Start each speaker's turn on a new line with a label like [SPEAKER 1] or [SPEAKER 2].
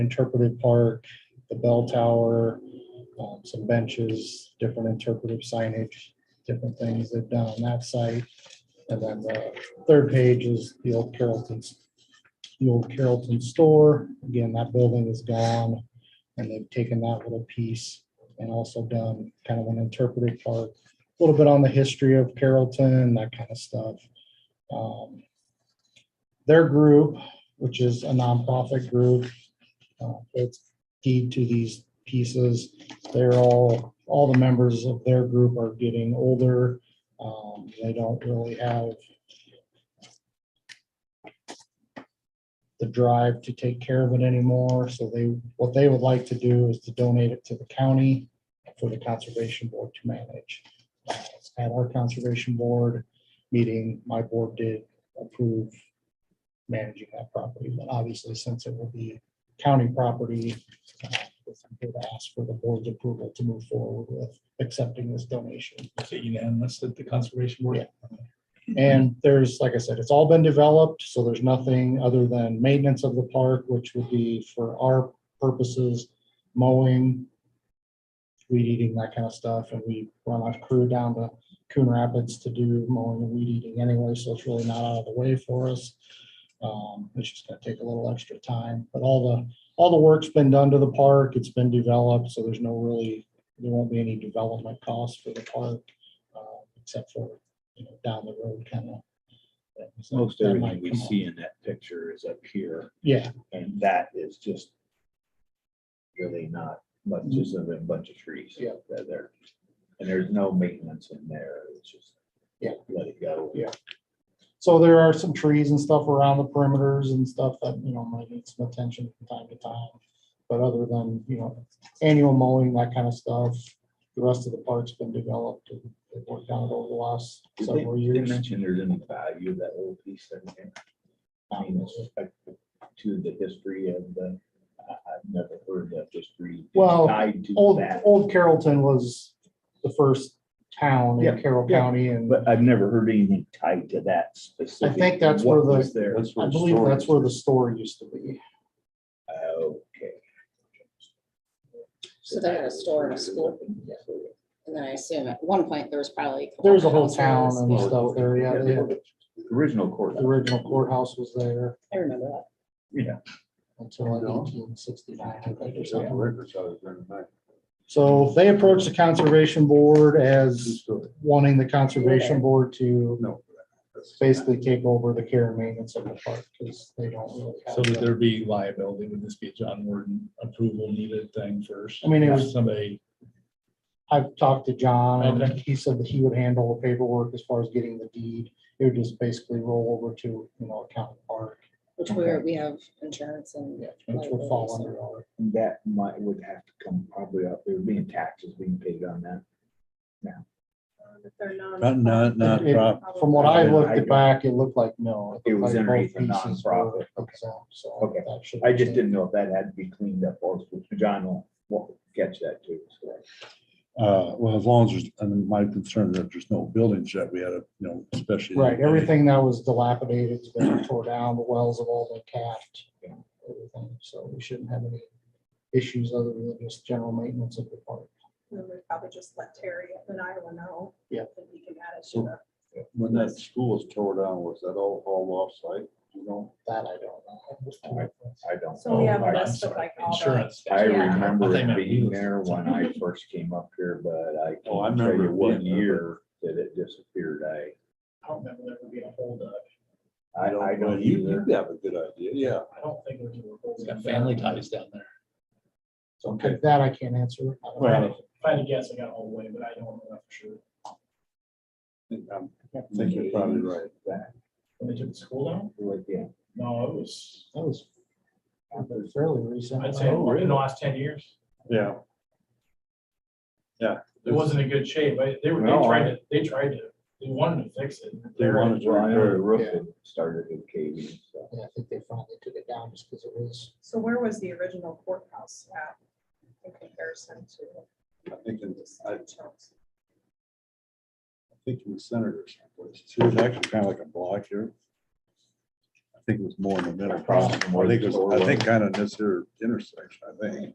[SPEAKER 1] interpretive park, the bell tower, um, some benches, different interpretive signage, different things they've done on that site. And then the third page is the old Carrollton's, the old Carrollton store. Again, that building is gone. And they've taken that little piece and also done kind of an interpretive park, a little bit on the history of Carrollton, that kind of stuff. Um, Their group, which is a nonprofit group, uh, that's key to these pieces. They're all, all the members of their group are getting older. Um, They don't really have the drive to take care of it anymore. So they, what they would like to do is to donate it to the county for the conservation board to manage. Uh, At our conservation board meeting, my board did approve managing that property. But obviously, since it will be county property, uh, would ask for the board's approval to move forward with accepting this donation.
[SPEAKER 2] Is it unanimous at the conservation board?
[SPEAKER 1] And there's, like I said, it's all been developed, so there's nothing other than maintenance of the park, which would be for our purposes, mowing, weed eating, that kind of stuff, and we run our crew down to Coon Rapids to do mowing and weed eating anyway, so it's really not out of the way for us. Um, It's just gonna take a little extra time, but all the, all the work's been done to the park, it's been developed, so there's no really, there won't be any development costs for the park, uh, except for you know, down the road kind of.
[SPEAKER 3] Most everything we see in that picture is up here,
[SPEAKER 1] Yeah,
[SPEAKER 3] and that is just really not much, just a bunch of trees.
[SPEAKER 1] Mm-hmm. Yeah.
[SPEAKER 3] They're there. And there's no maintenance in there. It's just.
[SPEAKER 1] Yeah.
[SPEAKER 3] Let it go.
[SPEAKER 1] Yeah. so there are some trees and stuff around the perimeters and stuff that, you know, might need some attention from time to time. But other than, you know, annual mowing, that kind of stuff, the rest of the park's been developed and they've worked on it over the last
[SPEAKER 3] Did they-
[SPEAKER 1] several
[SPEAKER 3] They
[SPEAKER 1] years.
[SPEAKER 3] mentioned there's any value of that little piece there. Ken? I mean, with respect to the history of the, I, I've never heard that history.
[SPEAKER 1] Well,
[SPEAKER 3] Tied to
[SPEAKER 1] Old,
[SPEAKER 3] that,
[SPEAKER 1] old Carrollton was the first town in
[SPEAKER 3] Yeah,
[SPEAKER 1] Carroll
[SPEAKER 3] yeah.
[SPEAKER 1] County and
[SPEAKER 3] but I've never heard anything tied to that specific.
[SPEAKER 1] that's where
[SPEAKER 3] what
[SPEAKER 1] the-
[SPEAKER 3] was There.
[SPEAKER 1] I believe that's where the store used to be.
[SPEAKER 3] Okay.
[SPEAKER 4] So they had a store and a school, and then I assume at one point there was probably. couple
[SPEAKER 1] There's a whole
[SPEAKER 4] houses.
[SPEAKER 1] town and
[SPEAKER 4] Yeah,
[SPEAKER 1] stuff there, yeah, they had-
[SPEAKER 3] Original court.
[SPEAKER 1] the original courthouse was there.
[SPEAKER 4] I remember that.
[SPEAKER 3] Yeah.
[SPEAKER 1] until
[SPEAKER 5] No.
[SPEAKER 1] eighteen sixty-nine.
[SPEAKER 5] Who's
[SPEAKER 1] So they approached the conservation board as
[SPEAKER 5] doing it?
[SPEAKER 1] wanting the conservation board to
[SPEAKER 5] No.
[SPEAKER 1] basically take over the care and maintenance of the park because they don't really
[SPEAKER 2] So would
[SPEAKER 1] have.
[SPEAKER 2] there be liability? Would this be a John Warden approval needed thing first?
[SPEAKER 1] I mean, it
[SPEAKER 2] If
[SPEAKER 1] was-
[SPEAKER 2] Somebody,
[SPEAKER 1] I've talked to John and
[SPEAKER 2] Okay.
[SPEAKER 1] he said that he would handle the paperwork as far as getting the deed. It would just basically roll over to, you know, a county park,
[SPEAKER 4] Which where we have insurance and
[SPEAKER 1] yeah, which would fall under our.
[SPEAKER 3] That might, would have to come probably up, there being taxes being paid on that.
[SPEAKER 6] Not, not, not
[SPEAKER 1] It-
[SPEAKER 6] prop,
[SPEAKER 1] From what I looked at back, it looked like no.
[SPEAKER 3] It was
[SPEAKER 1] looked like
[SPEAKER 3] underneath the
[SPEAKER 1] both pieces were
[SPEAKER 3] nonprofit.
[SPEAKER 1] exempt, so
[SPEAKER 3] Okay.
[SPEAKER 1] that should-
[SPEAKER 3] I just didn't know if that had to be cleaned up or if John will, will catch that too. so.
[SPEAKER 6] uh, well, as long as, there's- and my concern is that there's no buildings yet, we had a, you know, especially.
[SPEAKER 1] Right, everything that was dilapidated has been tore down, the wells have all been capped, you know, everything, so we shouldn't have any issues other than just general maintenance of the park.
[SPEAKER 7] Then we probably just let Terry and Iowa know.
[SPEAKER 1] Yeah.
[SPEAKER 7] And we can add it to the,
[SPEAKER 5] When that school was tore down, was that all hauled off site? You know,
[SPEAKER 1] That I don't know.
[SPEAKER 3] I don't.
[SPEAKER 7] So we
[SPEAKER 3] know.
[SPEAKER 7] have a
[SPEAKER 3] I-
[SPEAKER 7] list of like all the.
[SPEAKER 2] insurance.
[SPEAKER 3] I
[SPEAKER 7] Yeah.
[SPEAKER 3] remember
[SPEAKER 2] I think
[SPEAKER 3] it
[SPEAKER 2] that
[SPEAKER 3] being
[SPEAKER 2] was-
[SPEAKER 3] there when I first came up here, but I
[SPEAKER 5] Oh, I
[SPEAKER 3] can't tell
[SPEAKER 5] remember
[SPEAKER 3] you
[SPEAKER 5] it
[SPEAKER 3] what
[SPEAKER 5] being there,
[SPEAKER 3] year that it disappeared. I,
[SPEAKER 2] I don't remember there being a holdup.
[SPEAKER 3] I I
[SPEAKER 5] Well,
[SPEAKER 3] don't
[SPEAKER 5] you-
[SPEAKER 3] either.
[SPEAKER 5] You have a good idea, yeah.
[SPEAKER 2] I don't think there's a holdup. It's got family ties down there.
[SPEAKER 5] Okay.
[SPEAKER 1] That I can't answer. I don't know.
[SPEAKER 5] Well-
[SPEAKER 2] If I had to guess, I got all the way, but I don't know for sure.
[SPEAKER 5] I'm thinking you're probably right.
[SPEAKER 3] That,
[SPEAKER 2] When they took the school down?
[SPEAKER 3] like, yeah.
[SPEAKER 2] No, it was,
[SPEAKER 1] That was happened fairly Oh, recent.
[SPEAKER 2] I'd say
[SPEAKER 3] Oh,
[SPEAKER 2] in the last ten years.
[SPEAKER 5] Yeah. Yeah.
[SPEAKER 2] It wasn't in good shape. I- They were, they
[SPEAKER 5] No, I-
[SPEAKER 2] tried to, they tried to, they wanted to fix it.
[SPEAKER 5] They wanted to
[SPEAKER 3] Well, I know the
[SPEAKER 5] repair it.
[SPEAKER 3] roof
[SPEAKER 1] Yeah.
[SPEAKER 3] had started to cave in, so.
[SPEAKER 1] Yeah, I think they finally took it down just because it was,
[SPEAKER 7] So where was the original courthouse at in comparison to?
[SPEAKER 5] I think, in-
[SPEAKER 7] this
[SPEAKER 5] I
[SPEAKER 7] town's?
[SPEAKER 5] think in the center or someplace. It was actually kind of like a block here. think it was more in the middle.
[SPEAKER 3] Across from where
[SPEAKER 5] I think
[SPEAKER 3] the
[SPEAKER 5] it
[SPEAKER 3] store
[SPEAKER 5] was, I
[SPEAKER 3] was.
[SPEAKER 5] think kind of this here intersection, I think.